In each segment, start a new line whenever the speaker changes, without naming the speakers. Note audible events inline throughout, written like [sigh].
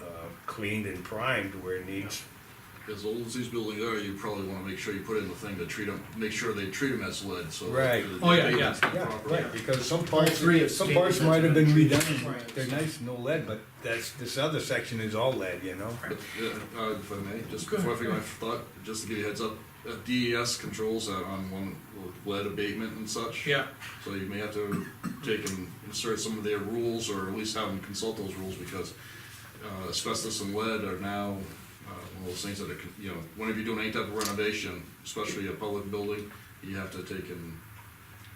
uh, cleaned and primed where it needs.
As old as these buildings are, you probably wanna make sure you put in the thing to treat them, make sure they treat them as lead, so. that
Right.
the
Oh, yeah, yeah.
abatement's done
Yeah,
properly.
right, because some
Part
parts,
three of
some
stated
parts
that's
might have been
been treated.
redone,
Right.
they're nice, no lead, but that's, this other section is all lead, you know?
But, uh, uh, if I may, just before I forget my thought, just to give you a heads up, uh, DES controls that on one lead abatement and such.
Yeah,
So you may have to take and insert some of their rules, or at least have them consult those rules, because uh, asbestos and lead are now uh, one of those things that are, con- you know, whenever you're doing any type of renovation, especially a public building, you have to take and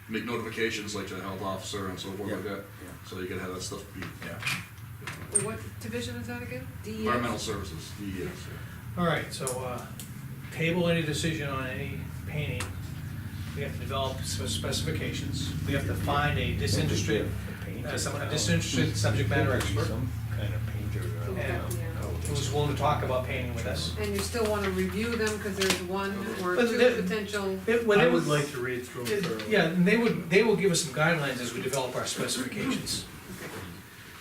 make notifications like to the health officer and so forth like
Yeah,
that.
yeah.
So you gotta have that stuff be
Yeah.
Well, What division is that again? DES?
environmental services, DES.
all right, so, uh, table any decision on any painting. We have to develop some specifications, we have to find a disinterested, uh, someone, a disinterested subject matter expert
Some kind of painter. uh,
Yeah.
Yeah.
who's willing to talk about painting with us.
And you still wanna review them, cause there's one or
But
two
the-
potential,
It- when
I
they-
would like to read through them thoroughly.
Yeah, and they would, they will give us some guidelines as we develop our specifications.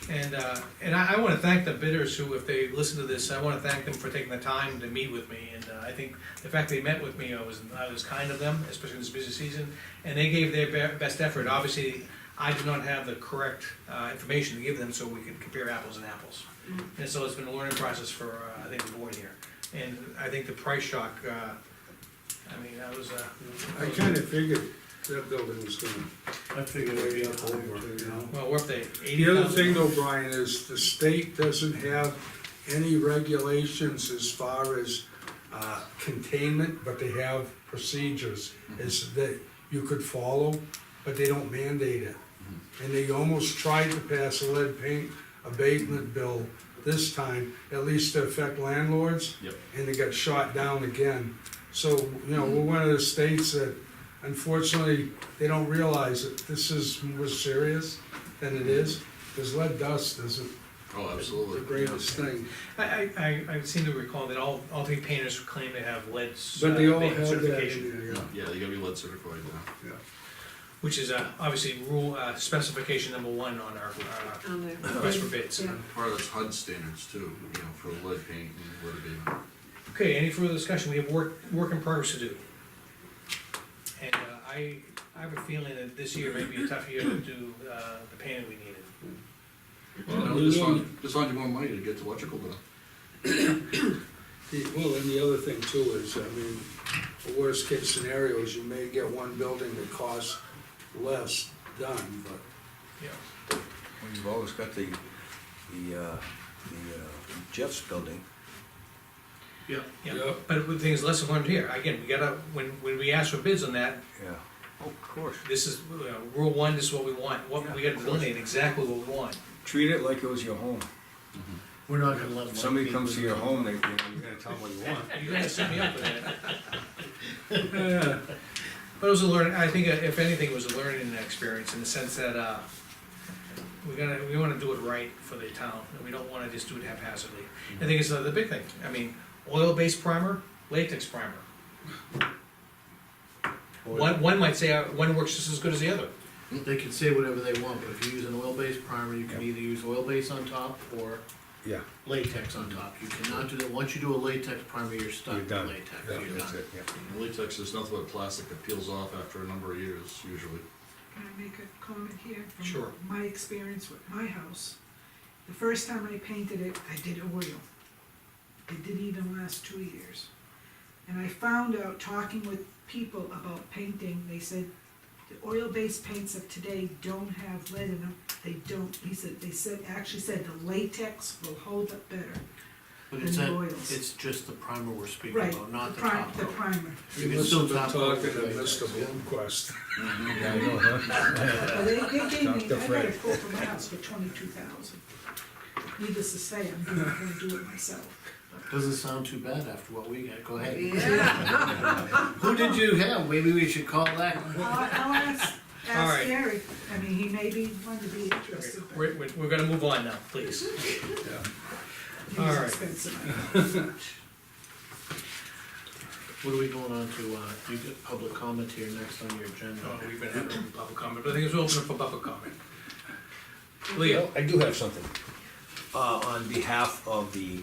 And, uh, and I, I wanna thank the bidders who, if they listen to this, I wanna thank them for taking the time to meet with me. And uh, I think the fact they met with me, I was, I was kind of them, especially in this busy season, and they gave their be- best effort. Obviously, I did not have the correct, uh, information to give them, so we could compare apples and apples. And so it's been a learning process for, uh, I think, the board here. And I think the price shock, uh, I mean, that was, uh.
I kinda figured that building was gonna
I figured it'd be up over, you know?
Well, we're up to eighty
The
thousand.
other thing though, Brian, is the state doesn't have any regulations as far as, uh, containment, but they have procedures, is that you could follow, but they don't mandate it. And they almost tried to pass a lead paint abatement bill this time, at least to affect landlords.
Yep.
And it got shot down again. So, you know, we're one of the states that unfortunately, they don't realize that this is more serious than it is. Because lead dust isn't
Oh, absolutely.
the greatest thing,
I, I, I- I seem to recall that all, all three painters claim they have lead. s-
but they
uh,
all
paint
have that
certification,
in there, yeah.
Yeah, you gotta be lead certified now.
yeah.
Which is, uh, obviously rule, uh, specification number one on our, uh,
on the.
request for bids.
Yeah.
Part of that's HUD standards too, you know, for lead paint and lead abatement.
Okay, any further discussion? We have work, work in progress to do. And, uh, I, I have a feeling that this year may be a tough year to do, uh, the painting we needed.
Well, just find, just find you more money to get to electrical done.
The- Well, and the other thing too is, I mean, the worst case scenario is you may get one building that costs less done, but
Yeah.
Well, you've always got the, the, uh, the uh, Jeff's building.
Yeah.
Yeah,
Yeah.
but the thing is, lesson learned here. Again, we gotta, when, when we ask for bids on that,
Yeah. Oh, Of course.
this is, uh, rule one, this is what we want. What, we gotta delineate exactly what we want.
Treat it like it was your home.
We're not gonna let.
If
them-
somebody comes to your home, they, you know, you're gonna tell them what you want.
You're gonna set me up with that. But it was a learning, I think uh, if anything, it was a learning experience in the sense that, uh, we gotta, we wanna do it right for the town, and we don't wanna just do it haphazardly. I think it's uh, the big thing, I mean, oil-based primer, latex primer. One, one might say, uh, one works just as good as the other.
They can say whatever they want, but if you use an oil-based primer, you can
Yeah.
either use oil-based on top or
Yeah,
latex on top. You cannot do that, once you do a latex primer, you're stuck
you're
with
done.
latex,
Yeah,
you're
that's
done.
it, yeah.
And Latex is nothing but plastic that peels off after a number of years, usually.
Can I make a comment here? from
Sure.
My experience with my house, the first time I painted it, I did oil. It didn't even last two years. And I found out, talking with people about painting, they said, the oil-based paints of today don't have lead in them, they don't, he said, they said, actually said the latex will hold up better.
But it's
And
that,
oils.
it's just the primer we're speaking
Right,
about, not the
prim-
top
The
coat. [laughs]
primer,
you
You can
must
still
have been
top coat
talking
with
to
latex.
Mr. Bloomquist.
Yeah, I know, huh?
[laughs]
Well, they, they gave
Dr.
me, I got a
Fred.
quote for my house for twenty-two thousand. Needless to say, I'm not gonna do it myself.
Doesn't sound too bad after what we got, go ahead.
Yeah,
[laughs] Who did you have? Maybe we should call that.
I'll, I'll ask,
All right.
ask Gary, I mean, he may be, one to
Okay,
be interested, but
We're, we're, we're gonna move on now, please. all
he's
right.
expensive.
What are we going on to, uh, you get public comment here next on your agenda?
Uh, We've been having public comment, but I think it's open for public comment. Leah?
Well, I do have something.
Uh, on behalf of the